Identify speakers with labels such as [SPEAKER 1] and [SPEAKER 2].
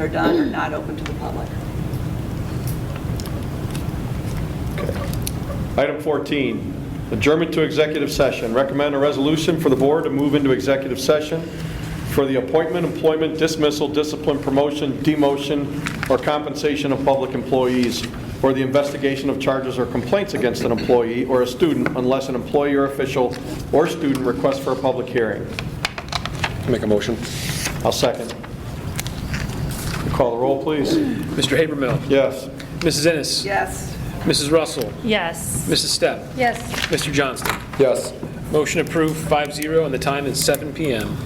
[SPEAKER 1] are done are not open to the public.
[SPEAKER 2] Item 14, adjournment to executive session. Recommend a resolution for the board to move into executive session for the appointment, employment, dismissal, discipline, promotion, demotion, or compensation of public employees, or the investigation of charges or complaints against an employee or a student unless an employee or official or student requests for a public hearing.
[SPEAKER 3] Make a motion.
[SPEAKER 2] I'll second. Call the roll, please.
[SPEAKER 4] Mr. Habermill.
[SPEAKER 2] Yes.
[SPEAKER 4] Mrs. Ennis.
[SPEAKER 1] Yes.
[SPEAKER 4] Mrs. Russell.
[SPEAKER 5] Yes.
[SPEAKER 4] Mrs. Stepp.
[SPEAKER 5] Yes.
[SPEAKER 4] Mr. Johnston.
[SPEAKER 3] Yes.
[SPEAKER 4] Motion approved, 5-0, and the time is 7 PM.